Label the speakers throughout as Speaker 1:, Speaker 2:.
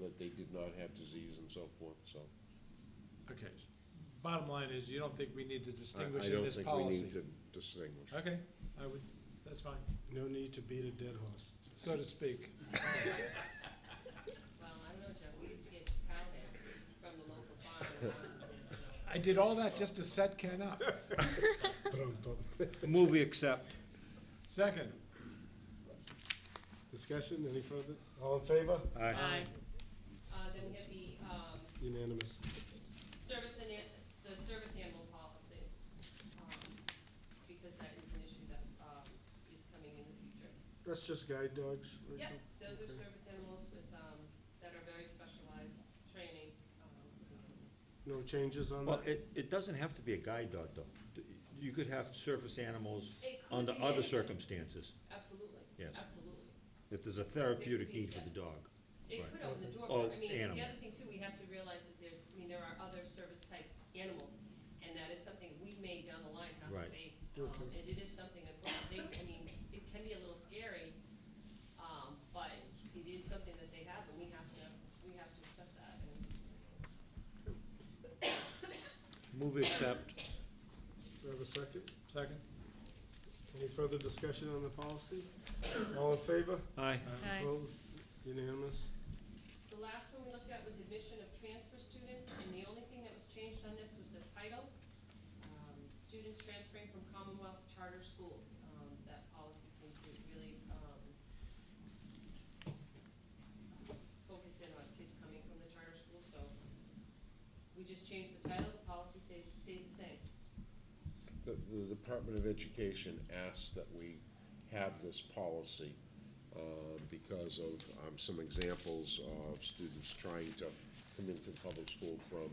Speaker 1: that they did not have disease and so forth, so.
Speaker 2: Okay. Bottom line is, you don't think we need to
Speaker 1: I-
Speaker 2: distinguish in this policy?
Speaker 1: I don't think we need to distinguish.
Speaker 2: Okay, I would, that's fine,
Speaker 3: No need to beat a dead horse.
Speaker 2: so to speak.
Speaker 4: Well, I don't know, Joe, we used to get powder from the local farm. when I was a kid, so-
Speaker 2: I did all that just to set Ken up.
Speaker 3: Brum, brum.
Speaker 5: Move we accept.
Speaker 2: Second,
Speaker 3: Discussion, any further? All in favor?
Speaker 4: Aye. Uh, then we have the, um,
Speaker 3: Unanimous.
Speaker 4: service and, an- the service animal policy, um, because that is an issue that, um, is coming in the future.
Speaker 3: That's just guide dogs, Rachel?
Speaker 4: Yep, those are
Speaker 3: Okay.
Speaker 4: service animals with, um, that are very specialized training, um,
Speaker 3: No changes on
Speaker 5: Well,
Speaker 3: that?
Speaker 5: it, it doesn't have to be a guide dog, though. D- You could have surface animals
Speaker 4: It could
Speaker 5: under
Speaker 4: be
Speaker 5: other
Speaker 4: anything.
Speaker 5: circumstances,
Speaker 4: Absolutely.
Speaker 5: Yes.
Speaker 4: Absolutely.
Speaker 5: if there's a therapeutic
Speaker 4: be,
Speaker 5: need for
Speaker 4: yeah.
Speaker 5: the dog.
Speaker 4: It
Speaker 5: Right. Oh,
Speaker 4: could open the door,
Speaker 5: Or
Speaker 4: but I mean, the
Speaker 5: animal.
Speaker 4: other thing too, we have to realize that there's, I mean, there are other service type animals, and that is something we may down the line have to
Speaker 5: Right.
Speaker 4: face. Um,
Speaker 3: Okay.
Speaker 4: and it is something that, they, I mean, it can be a little scary, um, but it is something that they have, and we have to, we have to accept that, and
Speaker 5: Move we accept.
Speaker 3: Do I have a second?
Speaker 2: second,
Speaker 3: Any further discussion on the policy? All in favor?
Speaker 5: Aye.
Speaker 6: Aye.
Speaker 3: Opposed? Unanimous?
Speaker 4: The last one we looked at was admission of transfer students, and the only thing that was changed on this was the title. Um, Students transferring from Commonwealth to charter schools, um, that policy seems to really, um, focus in on kids coming from the charter school, so we just changed the title, the policy stays, stays the same.
Speaker 1: The, the Department of Education asked that we have this policy, uh, because of, um, some examples of students trying to come into public school from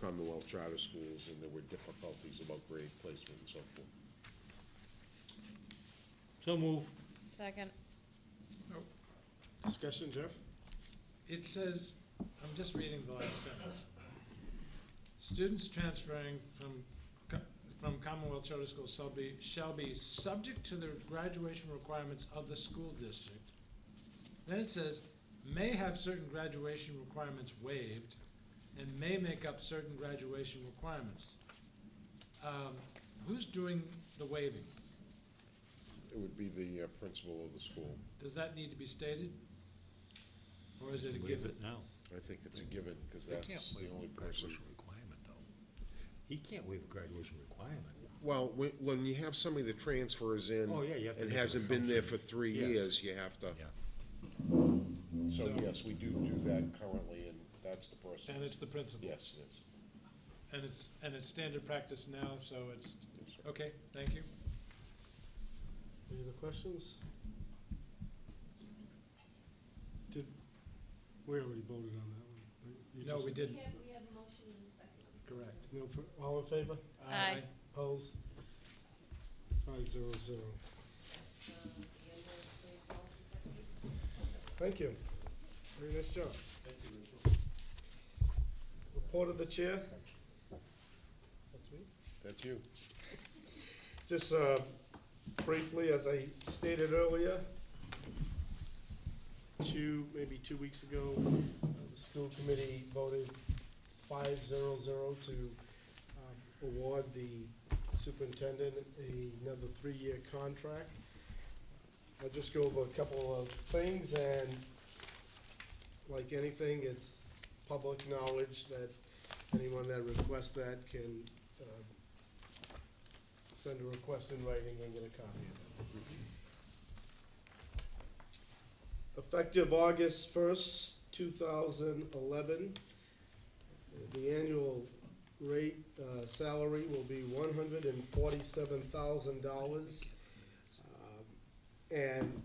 Speaker 1: Commonwealth charter schools, and there were difficulties about grade placement and so forth.
Speaker 5: So move.
Speaker 6: Second.
Speaker 3: Discussion, Jeff?
Speaker 2: it says, I'm just reading the last sentence. Students transferring from, co- from Commonwealth Charter School shall be, shall be subject to the graduation requirements of the school district. Then it says, may have certain graduation requirements waived, and may make up certain graduation requirements. Um, who's doing the waiving?
Speaker 1: It would be the uh, principal of the school.
Speaker 2: Does that need to be stated? Or is it a
Speaker 5: Waive
Speaker 2: given?
Speaker 5: it now.
Speaker 1: I think it's a given, because that's the only person.
Speaker 5: requirement, though. He can't waive a graduation requirement.
Speaker 1: Well, when, when you have somebody that transfers in.
Speaker 5: Oh, yeah, you have to
Speaker 1: And
Speaker 5: make an
Speaker 1: hasn't been there for
Speaker 5: assumption.
Speaker 1: three
Speaker 5: Yes.
Speaker 1: years, you have to.
Speaker 5: Yeah.
Speaker 1: So, yes, we do do that currently, and that's the person.
Speaker 2: And it's the principal?
Speaker 1: Yes, it is.
Speaker 2: And it's, and it's standard practice now, so it's,
Speaker 1: Yes, sir.
Speaker 2: okay, thank you.
Speaker 3: Any other questions? Did, we already voted on that one. right? You
Speaker 2: No,
Speaker 3: just-
Speaker 2: we didn't,
Speaker 4: have, we have a motion in a second.
Speaker 2: correct.
Speaker 3: No, fir- all in favor?
Speaker 6: Aye.
Speaker 3: Opposed? Five zero zero.
Speaker 4: Um, the end of the policy section.
Speaker 3: Thank you. Very nice job.
Speaker 2: Thank you, Rachel.
Speaker 3: Report of the chair? That's me?
Speaker 1: That's you.
Speaker 3: Just uh, briefly, as I stated earlier, two, maybe two weeks ago, uh, the school committee voted five zero zero to um, award the superintendent another three-year contract. I'll just go over a couple of things, and like anything, it's public knowledge that anyone that requests that can uh, send a request in writing and get a copy of it. Effective August first, two thousand eleven, the annual rate, uh, salary will be one hundred and forty-seven thousand dollars. Um, And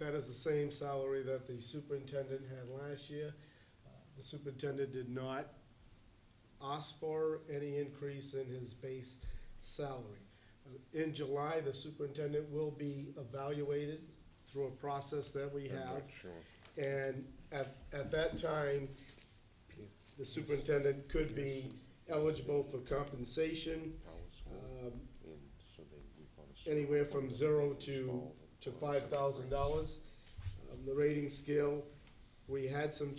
Speaker 3: that is the same salary that the superintendent had last year. Uh, The superintendent did not ask for any increase in his base salary. Uh, In July, the superintendent will be evaluated through a process that we
Speaker 1: I'm
Speaker 3: have.
Speaker 1: not sure.
Speaker 3: And at, at that time, the superintendent could be eligible for compensation,
Speaker 1: Howard School,
Speaker 3: um,
Speaker 1: and so they- we call it-
Speaker 3: anywhere from zero Um, to, to five thousand dollars. The rating scale, we had some